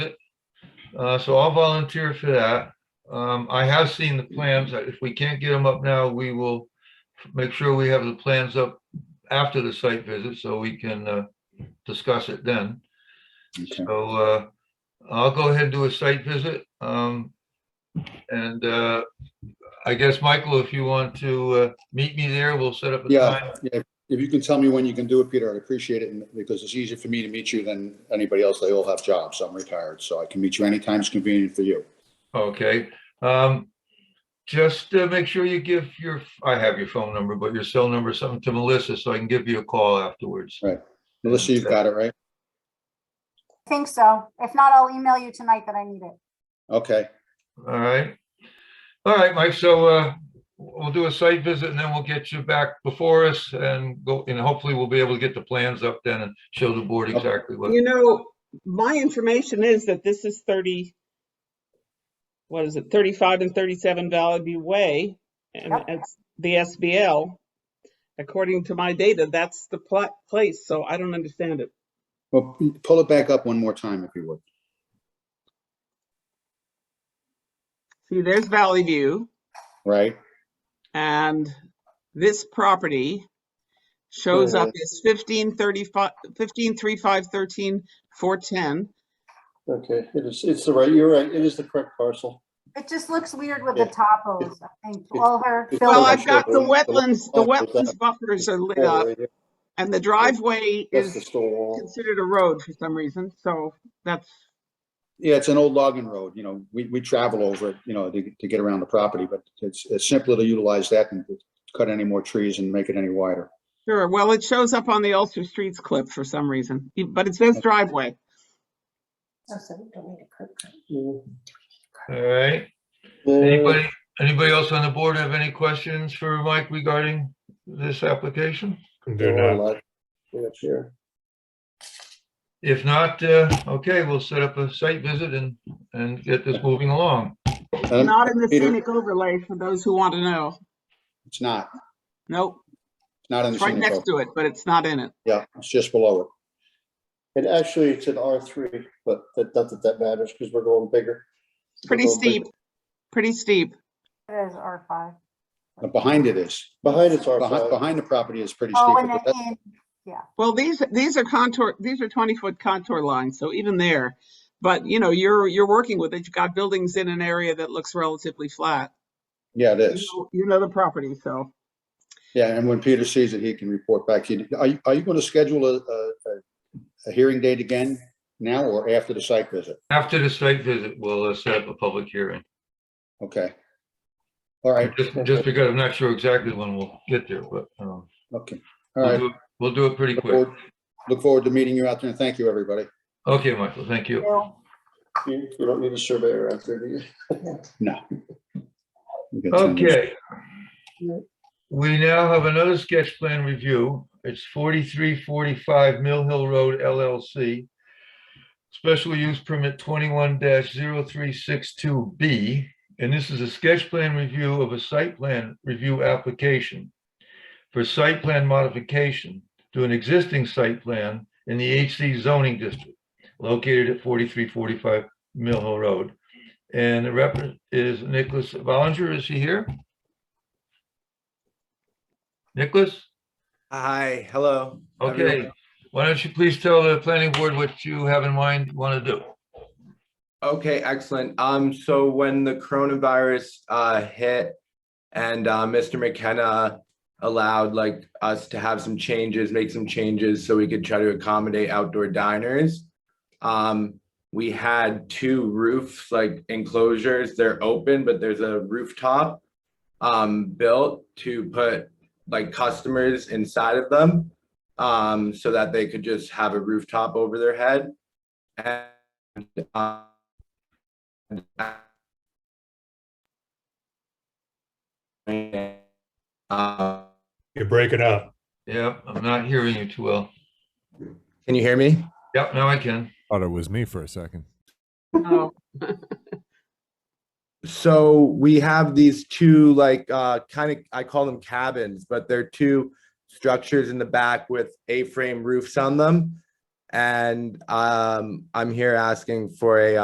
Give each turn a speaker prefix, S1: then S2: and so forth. S1: Uh, so I'll volunteer for that. Um, I have seen the plans. Uh, If we can't get them up now, we will make sure we have the plans up after the site visit so we can, uh, discuss it then.
S2: Okay.
S1: So, uh, I'll go ahead and do a site visit. Um, and, uh, I guess, Michael, if you want to, uh, meet me there, we'll set up a
S2: Yeah.
S1: time.
S2: Yeah, If you can tell me when you can do it, Peter, I'd appreciate it, and- because it's easier for me to meet you than anybody else. They all have jobs. I'm retired, so I can meet you anytime it's convenient for you.
S1: Okay, um, just uh make sure you give your, I have your phone number, but your cell number, something to Melissa, so I can give you a call afterwards.
S2: Right. Melissa, you've got it, right?
S3: Think so. If not, I'll email you tonight that I need it.
S2: Okay,
S1: All right. All right, Mike, so, uh, we'll do a site visit and then we'll get you back before us and go, and hopefully we'll be able to get the plans up then and show the board
S2: Okay.
S1: exactly what.
S4: You know, my information is that this is thirty, what is it, thirty-five and thirty-seven Valley View Way, and
S3: Yep.
S4: it's the SBL. According to my data, that's the pla- place, so I don't understand it.
S2: well, p- pull it back up one more time if you would.
S4: See, there's Valley View,
S2: Right?
S4: and this property shows up as fifteen thirty-five, fifteen three five thirteen four ten.
S5: Okay, it is, it's the right, you're right, it is the correct parcel.
S3: It just looks weird with the
S2: Yeah.
S3: topos, I think,
S2: It-
S3: all her.
S2: it's
S4: Well,
S2: not
S3: buildings.
S4: I've
S2: sure,
S4: got the
S2: but-
S4: wetlands, the
S2: Oh, is that-
S4: wetlands buffers are lit
S2: Yeah,
S4: up,
S2: right there.
S4: and the driveway
S2: That's
S4: is
S2: the stone wall.
S4: considered a road for some reason, so that's,
S2: Yeah, it's an old logging road, you know, we, we travel over it, you know, to, to get around the property, but it's, it's simpler to utilize that than to cut any more trees and make it any wider.
S4: sure, well, it shows up on the Ulster Streets clip for some reason, e- but it says driveway.
S6: Oh, so we don't need a curb cut.
S1: All right,
S5: Uh,
S1: anybody, anybody else on the board have any questions for Mike regarding this application?
S7: Do not.
S5: Way up here.
S1: If not, uh, okay, we'll set up a site visit and, and get this moving along.
S2: Um,
S4: Not in the
S2: Peter-
S4: scenic overlay for those who want to know.
S2: It's not,
S4: Nope,
S2: it's not in the
S4: it's right
S2: scenic road.
S4: next to it, but it's not in it.
S2: Yeah, it's just below it.
S5: And actually, it's an R three, but that, not that that matters, because we're going bigger.
S4: It's pretty
S5: We're going big-
S4: steep, pretty steep.
S3: It is R five.
S2: Uh, Behind it is.
S5: Behind it's R
S2: Behind,
S5: five.
S2: behind the property is pretty steep.
S3: Oh, and
S2: but
S3: the
S2: that-
S3: in,
S4: Well, these, these are contour, these are 20-foot contour lines, so even there. But, you know, you're, you're working with it, you've got buildings in an area that looks relatively flat.
S2: Yeah, it
S4: You
S2: is.
S4: know- You know the property, so.
S2: Yeah, and when Peter sees it, he can report back to you. Are you, are you going to schedule a, a, a- a hearing date again now or after the site visit?
S1: After the site visit, we'll uh, set up a public hearing.
S2: Okay. All right,
S1: Just, just because I'm not sure exactly when we'll get there, but, um,
S2: okay. All
S1: we'll
S2: right.
S1: do it- we'll do it pretty
S2: Look
S1: quick.
S2: forward- Look forward to meeting you out there and thank you, everybody.
S1: Okay, Michael, thank you.
S5: You, you don't need a surveyor out there, do you?
S2: We can turn this-
S1: Okay. We now have another sketch plan review. It's forty-three forty-five Mill Hill Road LLC. Special use permit twenty-one 362 B, and this is a sketch plan review of a site plan review application for site plan modification to an existing site plan in the HC zoning district located at forty-three forty-five Mill Hill Road. And the rep is Nicholas Ballinger. Is he here? Nicholas?
S8: Hi, hello.
S1: Okay.
S8: everyone.
S1: Why don't you please tell the planning board what you have in mind, you want to do?
S8: Okay, excellent. Um, so when the coronavirus uh hit and uh Mr. McKenna allowed like us to have some changes, make some changes so we could try to accommodate outdoor diners. Um, we had two roofs, like enclosures, they're open, but there's a rooftop um built to put like customers inside of them um so that they could just have a rooftop over their head. And uh, uh,
S7: You're breaking up.
S1: Yeah, I'm not hearing you too well.
S8: Can you hear me?
S1: Yep, now I can.
S9: Thought it was me for a second.
S4: Oh,
S8: So we have these two like uh kind of I call them cabins, but they're two structures in the back with A-frame roofs on them. And um I'm here asking for a